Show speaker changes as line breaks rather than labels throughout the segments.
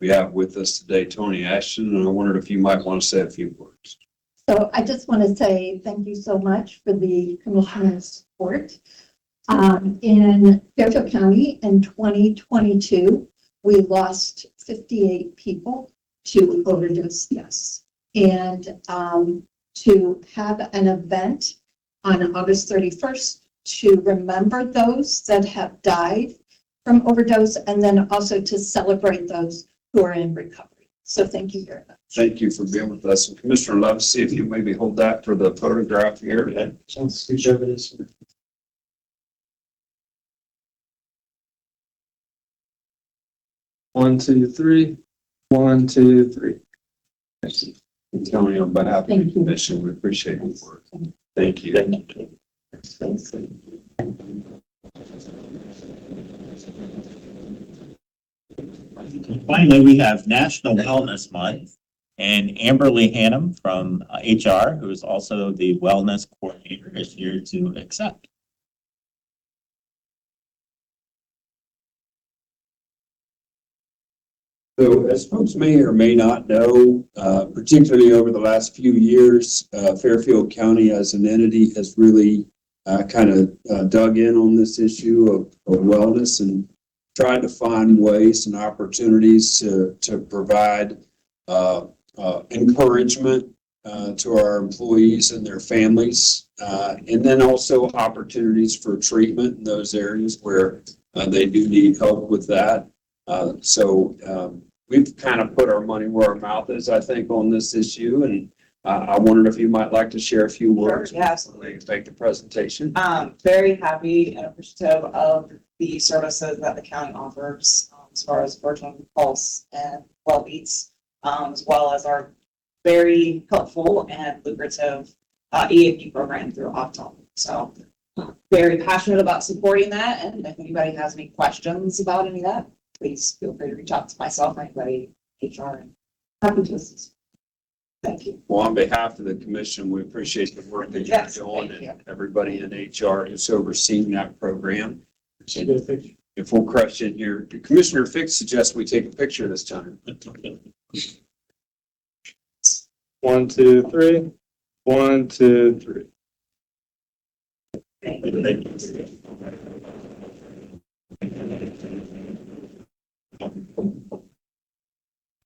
We have with us today Tony Ashton, and I wondered if you might want to say a few words.
So I just want to say thank you so much for the commissioner's support. Um, in Fairfield County in 2022, we lost 58 people to overdose deaths. And, um, to have an event on August 31st to remember those that have died from overdose and then also to celebrate those who are in recovery. So thank you very much.
Thank you for being with us. And Commissioner Levesey, if you maybe hold that for the photograph here. And
Sounds huge evidence. One, two, three. One, two, three.
Tony, on behalf of the
Thank you.
commission, we appreciate your work. Thank you.
Finally, we have National Wellness Month and Amberly Hannum from uh, HR, who is also the wellness coordinator, is here to accept.
So as folks may or may not know, uh, particularly over the last few years, uh, Fairfield County as an entity has really kind of uh, dug in on this issue of of wellness and tried to find ways and opportunities to, to provide uh, uh, encouragement uh, to our employees and their families, uh, and then also opportunities for treatment in those areas where uh, they do need help with that. Uh, So um, we've kind of put our money where our mouth is, I think, on this issue, and uh, I wondered if you might like to share a few words.
Sure, yes.
before they Make the presentation.
Um, very happy and appreciative of the services that the county offers um, as far as virtual pulse and well beats, um, as well as our very helpful and lucrative uh, EAP program through Optum. So very passionate about supporting that. And if anybody has any questions about any of that, please feel free to reach out to myself, or anybody, HR, and happy to assist. Thank you.
Well, on behalf of the commission, we appreciate the work that you're
Yes,
doing
thank you.
and everybody in HR who's overseeing that program.
Should get a picture.
If we'll crush it here, Commissioner Fix suggests we take a picture this time.
One, two, three. One, two, three.
Thank you.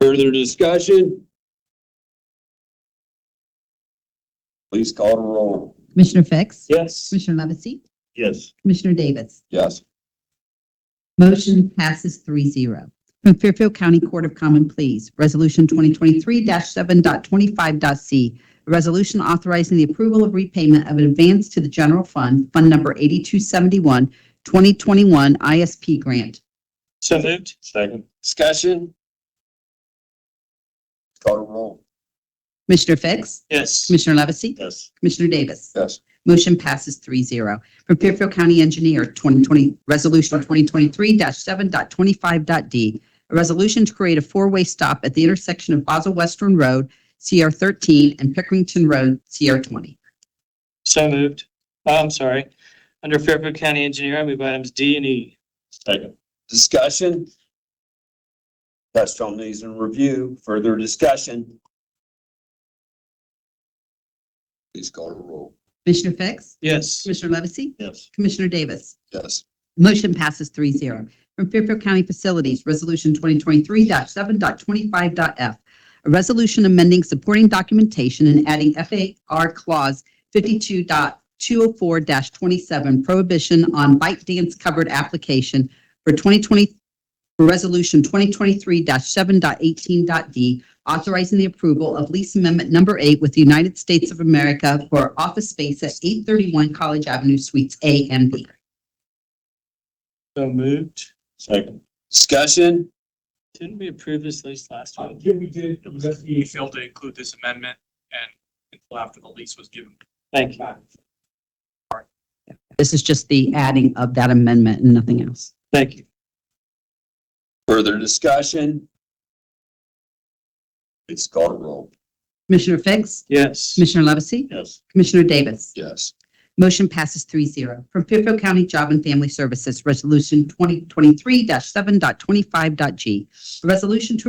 Further discussion? Please call to roll.
Commissioner Fix?
Yes.
Commissioner Levesey?
Yes.
Commissioner Davis?
Yes.
Motion passes 3-0 From Fairfield County Court of Common Pleas, Resolution 2023-7.25.c, a resolution authorizing the approval of repayment of an advance to the general fund, Fund Number 8271, 2021 ISP Grant.
So moved. Second.
Discussion? Call to roll.
Commissioner Fix?
Yes.
Commissioner Levesey?
Yes.
Commissioner Davis?
Yes.
Motion passes 3-0 From Fairfield County Engineer, 2020, Resolution 2023-7.25.d, a resolution to create a four-way stop at the intersection of Basel Western Road, CR 13, and Pickerington Road, CR 20.
So moved. Oh, I'm sorry. Under Fairfield County Engineer, I move items D and E.
Second.
Discussion? Touched on these in review. Further discussion? Please call to roll.
Commissioner Fix?
Yes.
Commissioner Levesey?
Yes.
Commissioner Davis?
Yes.
Motion passes 3-0 From Fairfield County Facilities, Resolution 2023-7.25.f. A resolution amending supporting documentation and adding FAR Clause 52.204-27 prohibition on bike dance covered application for 2020, for Resolution 2023-7.18.d, authorizing the approval of lease amendment number eight with the United States of America for office space at 831 College Avenue Suites A and B.
So moved.
Second.
Discussion?
Didn't we approve this lease last week?
Yeah, we did. It was FDA failed to include this amendment and until after the lease was given.
Thank you.
This is just the adding of that amendment and nothing else.
Thank you.
Further discussion? Please call to roll.
Commissioner Fix?
Yes.
Commissioner Levesey?
Yes.
Commissioner Davis?
Yes.
Motion passes 3-0. From Fairfield County Job and Family Services, Resolution 2023-7.25.g. A resolution to